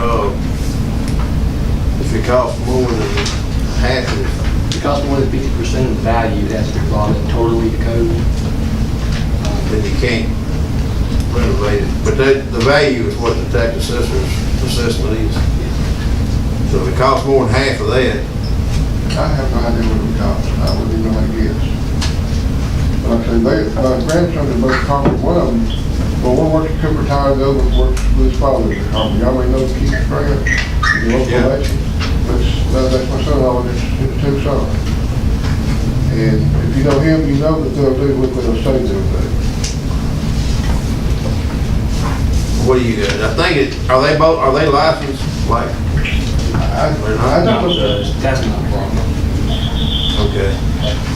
Uh, if it costs more than half of If it costs more than fifty percent of the value, it has to be brought in totally to code. it, then you can't renovate it. But that, the value is what the tax assessor's assessment is. So if it costs more than half of that, I have no idea what we're talking about, I wouldn't even like this. Like I say, they, my grandson's in both Concord, one of them, but one works at Cooper Tire, the other works with his father at Concord. Y'all may know Keith Springer, the local Yeah. legend, but uh, that's my son-in-law, and it's his two sons. And if you know him, you know that they'll do what they'll say they'll do. what do you got? I think it, are they both, are they licensed? Like, I, I Not don't, judged. That's not a problem. okay,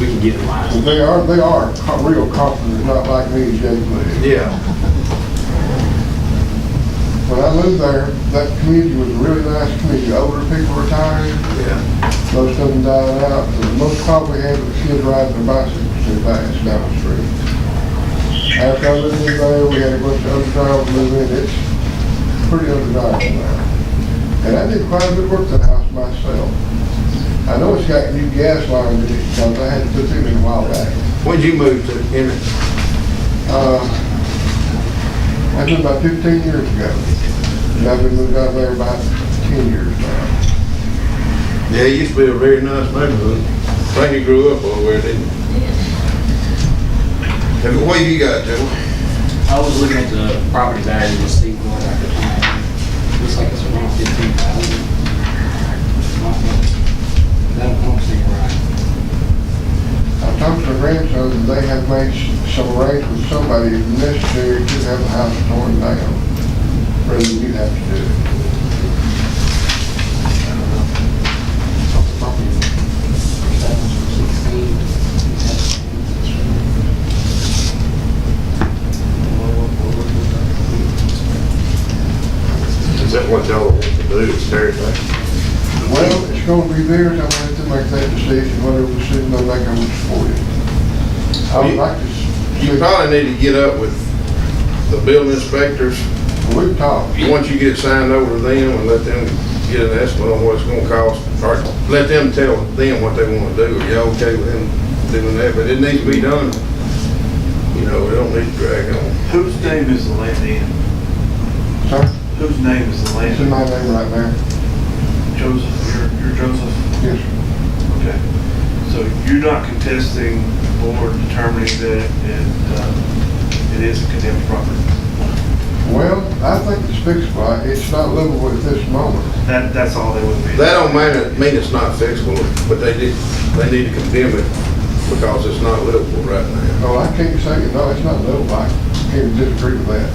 We can get in line. they are, they are co- real Concord, not like me, Jay Lee. yeah, When I lived there, that community was a really nice community. Older people retired, yeah. most of them died out. and The most probably had was kids riding their bicycles too fast down the street. After I lived in there, we had a bunch of underground move in. It's pretty underground now. And I did quite a bit of work to the house myself. I know it's got new gas lines in it because I had to put them in a while back. When'd you move to Emmett? Uh, I did about fifteen years ago. And I've been moved out there about ten years now. Yeah, it used to be a very nice neighborhood. I think you grew up over there, didn't you? And what have you got, Joe? I was looking at the property value to see what I could find. Looks like it's around fifteen thousand. That don't seem right. I talked to my grandson, and they have made s- some arrangements with somebody if necessary to have the house torn down. Rather than you have to do it. Property. That one's from sixteen. Is that what y'all want to do, is tear it down? Well, it's gonna be theirs, I'm gonna have to make that decision, whatever decision they make, I'm gonna support it. I would You- like to, s- You probably need to get up with the building inspectors. we've talked, Once you get it signed over to them and let them get an estimate on what it's gonna cost, or let them tell them what they wanna do. Are y'all okay with them doing that? But it needs to be done. You know, we don't need to drag on. Whose name is the land in? sir, Whose name is the it's land? in in? my name right there, Joseph, you're, you're Joseph? yes, sir. Okay. So you're not contesting or determining that it, uh, it is a condemned property? Well, I think it's fixable, I- it's not livable at this moment. That, that's all they would be? That don't mean, mean it's not fixable, but they did, they need to condemn it because it's not livable right now. Oh, I can't say, no, it's not livable, I can't disagree with that.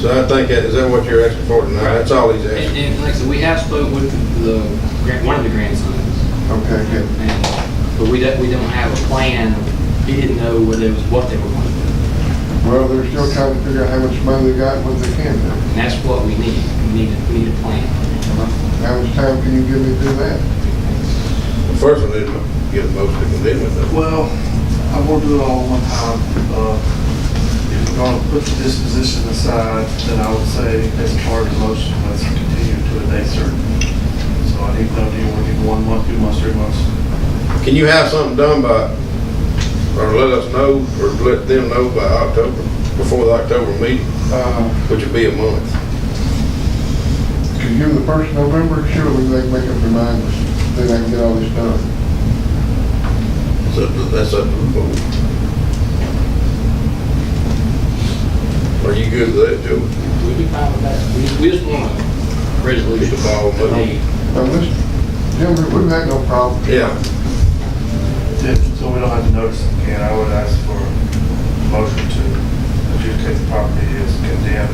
So I think that, is that what you're asking for tonight? That's all he's asking. And, and like I said, we have spoke with the, grand- one of the grandsons. Okay, good. And- But we don't, we don't have a plan. He didn't know what it was, what they were going to do. Well, they're still trying to figure out how much money they got and what they can do. And that's what we need. We need, a- we need a plan. How much time can you give me to do that? First one is to get a motion to condemn it. though. Well, I will do it all one time. Uh, If we're gonna put the disposition aside, then I would say as part of the motion, let's continue to a date certain. So I need to know, do you want to give one month, two months, three months? Can you have something done by, or let us know, or let them know by October, before the October meeting, Uh, which would be a month? could you give the first November, surely they can make up their minds, then I can get all this done. That's up to, that's up to the board. Are you good with that, Joe? We'd be fine with that. We just, we just want a resolution. Get the ball moving. Now, this, gentlemen, we've had no problem. Yeah. If- So we don't have to notice it again, I would ask for a motion to adjudicate the property as condemned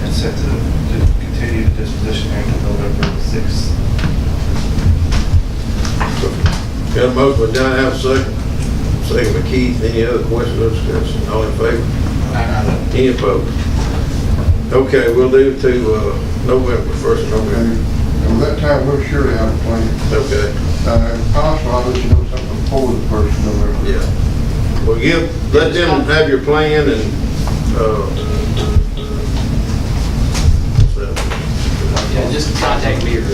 and set to to continue the disposition until November sixth. Got a motion by John, have a second. Second by Keith, any other questions or discussion? All in favor? Aye. Any opposed? Okay, we'll do to, uh, November first, And November, and that time, we'll surely have a plan. okay. Uh, if possible, I'll let you know something before the first November. Yeah. Well, give, let them have your plan and, uh, what's that? Yeah, just contact me or